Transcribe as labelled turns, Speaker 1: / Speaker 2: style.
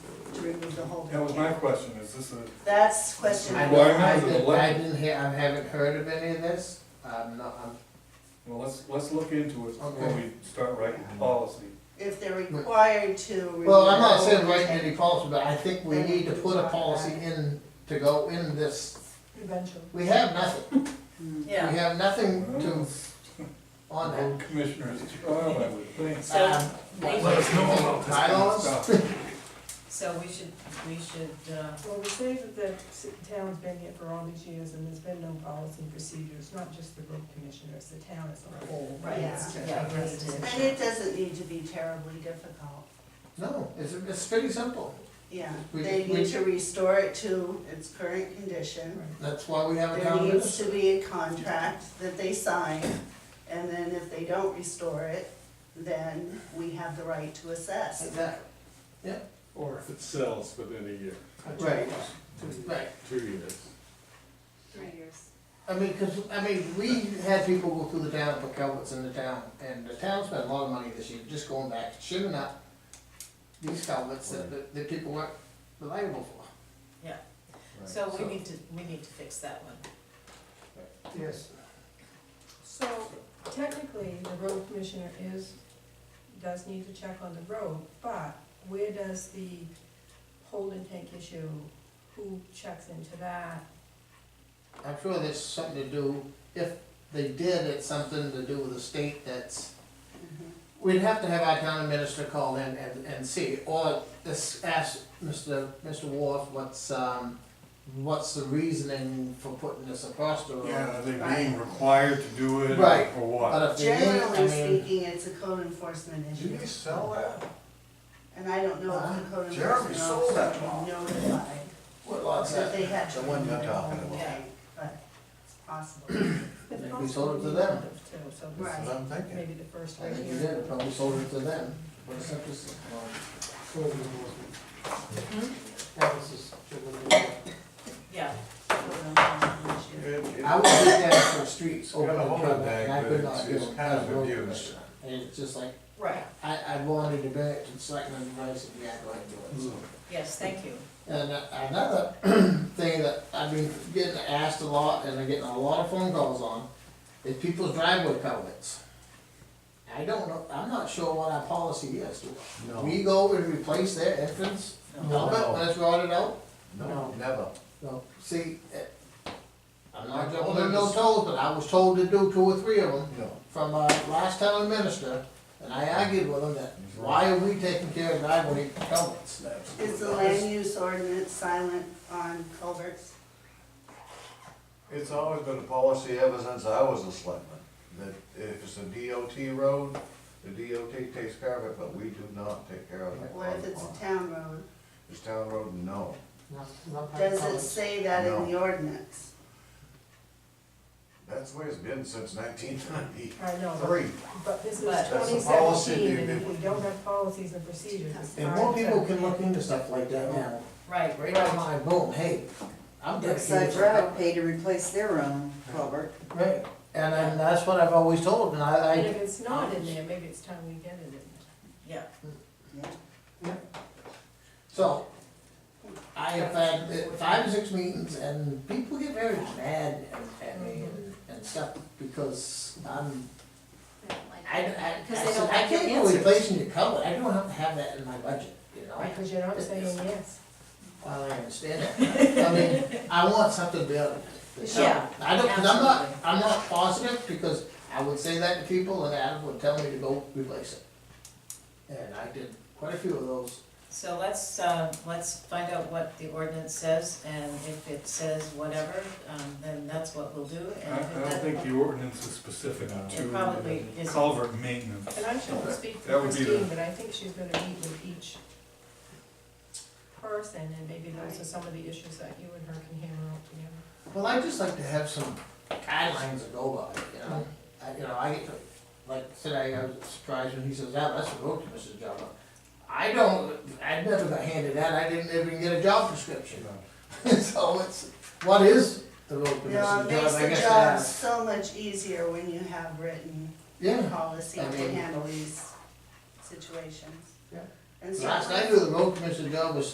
Speaker 1: remove the whole.
Speaker 2: That was my question, is this a,
Speaker 1: That's question.
Speaker 3: I
Speaker 1: number
Speaker 3: don't,
Speaker 2: Why
Speaker 1: one.
Speaker 3: I
Speaker 2: not?
Speaker 3: didn't, I didn't hear, I haven't heard of any of this, I'm not, I'm
Speaker 2: well, let's, let's look into it before we
Speaker 3: Okay.
Speaker 2: start writing the policy.
Speaker 1: If they're required to. remove
Speaker 3: Well, I'm
Speaker 1: the
Speaker 3: not
Speaker 1: whole
Speaker 3: saying writing any
Speaker 1: thing.
Speaker 3: policy, but I think we need to put a policy in to go in this.
Speaker 4: Eventually.
Speaker 3: We have nothing. We
Speaker 1: Yeah,
Speaker 3: have nothing to, on that.
Speaker 2: Road commissioners, trial, I would think.
Speaker 1: so,
Speaker 3: Um,
Speaker 1: they-
Speaker 5: Let us know about this. kind of
Speaker 3: Bylaws?
Speaker 5: stuff.
Speaker 1: so we should, we should, uh,
Speaker 4: Well, we say that the ci- town's been here for all these years and there's been no policy and procedures, not just the road commissioners, the town as a whole.
Speaker 1: Right.
Speaker 4: It's
Speaker 1: Yeah,
Speaker 4: just
Speaker 1: yeah,
Speaker 4: like
Speaker 1: we
Speaker 4: rest
Speaker 1: need
Speaker 4: of
Speaker 1: to-
Speaker 4: the-
Speaker 1: and it doesn't need to be terribly difficult.
Speaker 3: No, it's, it's pretty simple.
Speaker 1: Yeah,
Speaker 3: We-
Speaker 1: they
Speaker 3: we-
Speaker 1: need to restore it to its current condition.
Speaker 3: That's why we have a
Speaker 1: There
Speaker 3: town
Speaker 1: needs
Speaker 3: minister.
Speaker 1: to be a contract that they sign, and then if they don't restore it, then we have the right to assess.
Speaker 3: Exactly.
Speaker 6: Or if it sells within a year,
Speaker 3: Right, right.
Speaker 6: two years.
Speaker 7: Three years.
Speaker 3: I mean, cause, I mean, we had people go through the town, put culverts in the town, and the town spent a lot of money this year, just going back, shimming up these culverts that, that- that people weren't reliable for.
Speaker 1: So
Speaker 3: So-
Speaker 1: we need to, we need to fix that one.
Speaker 3: Yes.
Speaker 4: So technically, the road commissioner is, does need to check on the road, but where does the holding tank issue, who checks into that?
Speaker 3: I'm sure there's something to do, if they did, it's something to do with the state that's, we'd have to have our town minister call in and, and see, or this, ask Mr. Mr. Wharf, what's, um, what's the reasoning for putting this across the road?
Speaker 2: Yeah, are they being required to do it or
Speaker 3: Right.
Speaker 2: or what?
Speaker 3: But uh, if they did, I
Speaker 1: Generally
Speaker 3: mean,
Speaker 1: speaking, it's a code enforcement issue,
Speaker 5: sell that?
Speaker 1: and I don't know if the
Speaker 5: Huh?
Speaker 1: code
Speaker 5: Jeremy
Speaker 1: enforcement
Speaker 5: sold that
Speaker 1: officer
Speaker 5: law.
Speaker 1: would notify
Speaker 3: what lot's
Speaker 1: that
Speaker 3: that?
Speaker 1: they had to
Speaker 5: The one
Speaker 1: remove
Speaker 5: you're
Speaker 1: the whole
Speaker 5: talking about.
Speaker 1: thing, but it's possible.
Speaker 4: It's
Speaker 3: Maybe
Speaker 4: also
Speaker 3: sold it to them.
Speaker 4: too, so
Speaker 1: Right.
Speaker 5: That's what I'm thinking.
Speaker 4: maybe the first
Speaker 3: I
Speaker 4: right
Speaker 3: think
Speaker 4: here.
Speaker 3: we did, probably sold it to them, but it's not just, well, code enforcement. That was just-
Speaker 1: Yeah. Code enforcement issue.
Speaker 3: I would do that for streets,
Speaker 5: You
Speaker 3: open
Speaker 5: got a
Speaker 3: the
Speaker 5: hold of
Speaker 3: cover,
Speaker 5: that,
Speaker 3: and I
Speaker 5: but
Speaker 3: could
Speaker 5: it's-
Speaker 3: not do
Speaker 5: it's
Speaker 3: it
Speaker 5: kind
Speaker 3: as
Speaker 5: of
Speaker 3: a road
Speaker 5: abused.
Speaker 3: commissioner. And it's just like,
Speaker 1: Right,
Speaker 3: I, I wanted to bet and selectmen advice if you had like to do
Speaker 5: Hmm.
Speaker 3: it.
Speaker 1: yes, thank you.
Speaker 3: And uh, another thing that I've been getting asked a lot, and I'm getting a lot of phone calls on, is people's driveway culverts. I don't know, I'm not sure what our policy is, do we?
Speaker 5: No.
Speaker 3: We go and replace their entrance, culvert, when it's rotted out?
Speaker 5: No, never.
Speaker 3: No, see, eh, I'm
Speaker 5: I
Speaker 3: not
Speaker 5: told
Speaker 3: jumping on
Speaker 5: them
Speaker 3: no
Speaker 5: to-
Speaker 3: toes, but I was told to do two or three of them
Speaker 5: No.
Speaker 3: from our last town minister, and I argued with him that, why are we taking care of driveway culverts?
Speaker 1: Is the land use ordinance silent on culverts?
Speaker 8: It's always been a policy ever since I was a selectman, that if it's a DOT road, the DOT takes care of it, but we do not take care of it.
Speaker 1: What if it's a town road?
Speaker 8: It's town road, no.
Speaker 3: Not- not by
Speaker 1: Does it
Speaker 3: culverts.
Speaker 1: say that in the ordinance?
Speaker 8: That's the way it's been since nineteen ninety-three.
Speaker 4: I know, but- but this is
Speaker 1: But-
Speaker 4: twenty
Speaker 8: That's the policy,
Speaker 4: seventeen, and
Speaker 8: dude.
Speaker 4: if we don't have policies and procedures, it's
Speaker 3: And
Speaker 4: hard
Speaker 3: more people
Speaker 4: to-
Speaker 3: can look into stuff like that now.
Speaker 1: Right,
Speaker 3: Right on my boom, hey, I'm
Speaker 9: Brookside
Speaker 3: dedicated.
Speaker 9: Drive pay to replace their own culvert.
Speaker 3: Right, and then that's what I've always told, and I, I,
Speaker 4: And if it's not in there, maybe it's time we get it in there.
Speaker 1: yeah.
Speaker 3: so, I have had uh, five or six meetings, and people get very mad at- at me and, and stuff, because I'm,
Speaker 7: They don't like
Speaker 3: I, I,
Speaker 7: it.
Speaker 3: I
Speaker 7: Because they
Speaker 3: said,
Speaker 7: don't
Speaker 3: I
Speaker 7: like your
Speaker 3: can't go
Speaker 7: answers.
Speaker 3: replacing your color, I don't have to have that in my budget, you know?
Speaker 4: Right, because you're not saying yes.
Speaker 3: Well, I understand that, I mean, I want something better.
Speaker 1: Yeah,
Speaker 3: I don't, cause I'm not,
Speaker 1: absolutely.
Speaker 3: I'm not positive, because I would say that to people, and Adam would tell me to go replace it. And I did quite a few of those,
Speaker 1: So let's, uh, let's find out what the ordinance says, and if it says whatever, um, then that's what we'll do.
Speaker 2: I,
Speaker 1: And
Speaker 2: I don't think the ordinance is specific
Speaker 1: It probably
Speaker 2: to
Speaker 1: isn't.
Speaker 2: culvert maintenance.
Speaker 4: And I shouldn't speak for
Speaker 2: That would be the-
Speaker 4: Christine, but I think she's gonna meet with each person, and maybe those are some of the issues that you and her can hammer out together.
Speaker 3: well, I just like to have some guidelines to go by, you know? I, you know, I, get to- like today, I was surprised when he says, "Yeah, that's a road commissioner's job. I don't, I never got handed that, I didn't even get a job description. So it's, what is the road commissioner's
Speaker 1: No,
Speaker 3: job?
Speaker 1: it makes
Speaker 3: I
Speaker 1: the
Speaker 3: guess
Speaker 1: job
Speaker 3: that's-
Speaker 1: so much easier when you have written
Speaker 3: Yeah.
Speaker 1: policy to
Speaker 3: I mean-
Speaker 1: handle these situations.
Speaker 3: Yeah.
Speaker 1: And
Speaker 3: Last I
Speaker 1: certainly-
Speaker 3: knew, the road commissioner's job was